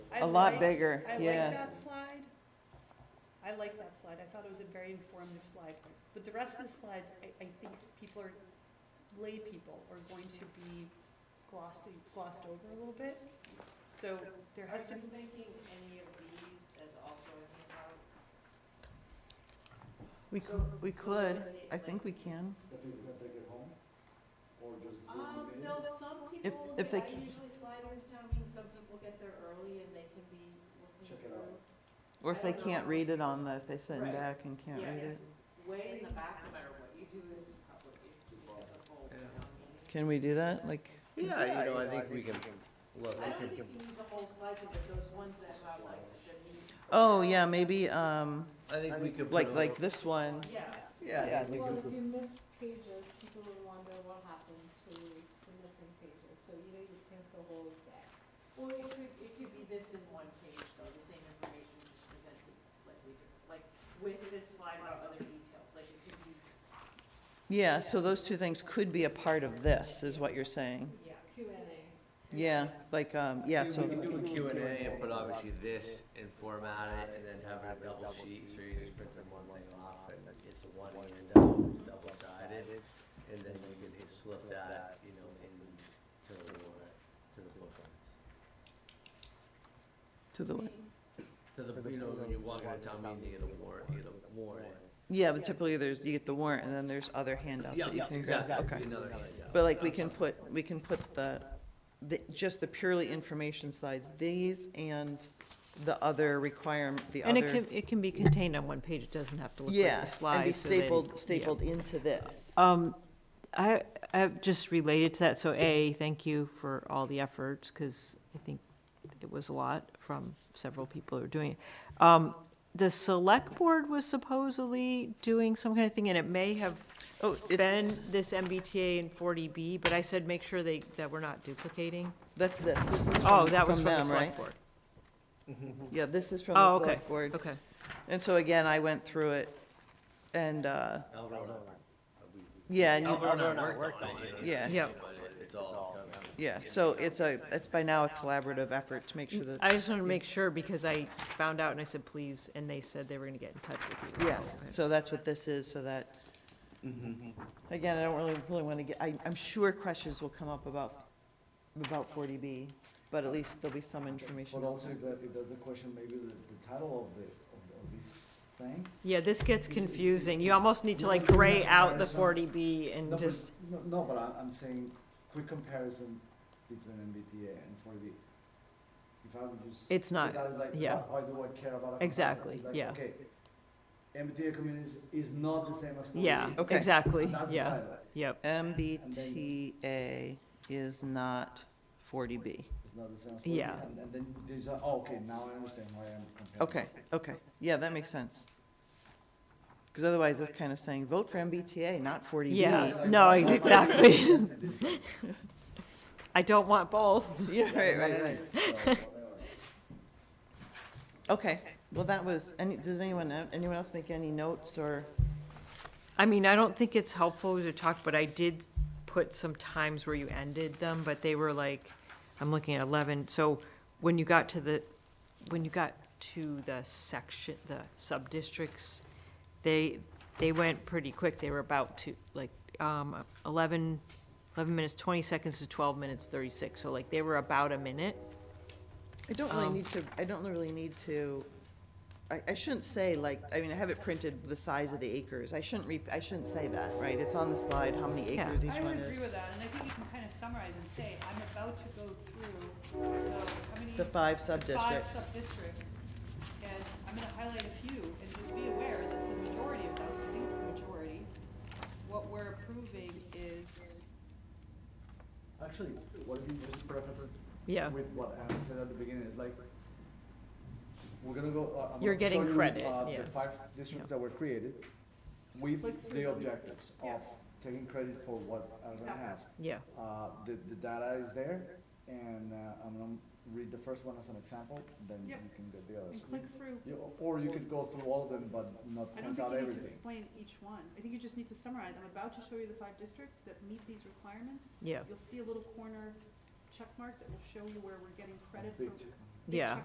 I A lot liked- bigger, I yeah. like that slide. I like that slide. I thought it was a very informative slide. But the rest of the slides, I, I think people are, lay people are going to be glossy, glossed over a little bit. So there has to Are be, you making any of these as also a handout? We, c- we could, I think we can. That people can take it home, or just. do it Um, in the no, evening? some If- people, if I they c- usually slide into town meeting, some people get there early and they can be looking Check it out. through. Or if they I don't can't know. read it on the, if they sit Right. back and can't Yeah, read it. it's Way in the back, no matter what you do is public, if if it's a whole Yeah. town meeting. Can we do that? Like, Yeah, you know, I think we can, look, I don't think you need the whole cycle, but those ones that have like the meat. oh, yeah, maybe, um, I think we could. put a like, little- like this one. Yeah. Yeah, I think we Well, could, if you miss pages, people will wonder what happened to the missing pages, so you know you print the whole deck. Well, it could, it could be this in one page, though, the same information, just presented slightly different, like, with this slide about other details, like, it could be, Yeah, so those two things could be a part of this, is what you're saying. yeah. Q and A. Yeah, like, um, yeah, so, we can do a Q and A and put obviously this and format it and then have it a double sheet, so you just print the one thing off and it's a one handout, it's double sided. And then you can hit- slip that, you know, into the, warrant, to the bookends. to the, To the, you know, when you walk into town meeting, you get a warrant, you get a warrant. yeah, but typically there's, you get the warrant, and then there's other handouts Yeah, that you can grab. exactly, Okay. another handout. But like, we can put, we can put the, the, just the purely information slides, these and the other requirement, the And other. it can, it can be contained on one page, it doesn't have to look like Yeah, the slides. and be then- stapled, yeah. stapled into this. Um, I, I just related to that, so A, thank you for all the efforts, because I think it was a lot from several people who are doing it. Um, the select board was supposedly doing some kind of thing, and it may have Oh, it, been this MBTA and forty B, but I said make sure they, that we're not duplicating. that's this, this is from, Oh, that was from from the them, right? select board. Yeah, this is from Oh, the okay, select board. okay. And so again, I went through it and, uh, Alvaro, yeah, and you- Alvaro and I worked on it. yeah, Yeah. But it- it's all covered. yeah. So it's a, it's by now a collaborative effort to make sure that, I just wanted to make sure because I found out and I said, please, and they said they were gonna get in touch with you. yeah, so that's what this is, so that. Mm-hmm. Again, I don't really, really want to get, I, I'm sure questions will come up about, about forty B, but at least there'll be some information. But also, if that, if that's the question, maybe the, the title of the, of, the- of this thing. Yeah, this gets confusing. You almost need to like gray out the forty B No, and but- just, No, no, but I'm, I'm saying, quick comparison between MBTA and four D. If I would just. It's not- That is like, yeah. why- Why do I care about? a comparison? Exactly, It's like, yeah. Okay, MBTA communities is not the same as four D. yeah, Okay. exactly, yeah, yep. MBTA is not forty B. It's not the same as 4D. Yeah. And, and then there's a, oh, okay, now I understand why I'm comparing. Okay, okay, yeah, that makes sense. Because otherwise, that's kind of saying, vote for MBTA, not 40B. Yeah, no, exactly. I don't want both. Yeah, right, right, right. right. Okay, well, that was, any, does anyone, anyone else make any notes or? I mean, I don't think it's helpful to talk, but I did put some times where you ended them, but they were like, I'm looking at eleven, so when you got to the, when you got to the section, the sub-districts, they, they went pretty quick, they were about to, like, um, eleven, eleven minutes, twenty seconds to twelve minutes, thirty-six, so like, they were about a minute. I don't really Um, need to, I don't really need to, I, I shouldn't say like, I mean, I have it printed the size of the acres. I shouldn't re, I shouldn't say that, right? It's on the slide, how many Yeah. acres each I one would agree is. with that, and I think you can kind of summarize and say, I'm about to go through the, how many? The five five sub-districts. sub-districts, and I'm gonna highlight a few, and just be aware that the majority of them, I think it's the majority, what we're approving is, Actually, what if you just preface it? Yeah. With what Anna said at the beginning, it's like, we're gonna go, uh, I'm You're gonna getting show you, credit, uh, yeah. The five districts that were created with the objectives Yeah. of taking credit for what Arizona has. Yeah, Uh, the, the data is there, and, uh, I'm gonna read the first one as an example, then you Yep. can get the others. and click through. Yeah, or you could go through all of them, but not I point don't think out you need to everything. explain each one, I think you just need to summarize, I'm about to show you the five districts that meet these requirements. yeah, You'll see a little corner check mark that will show you where we're getting credit for. Big check. big yeah, check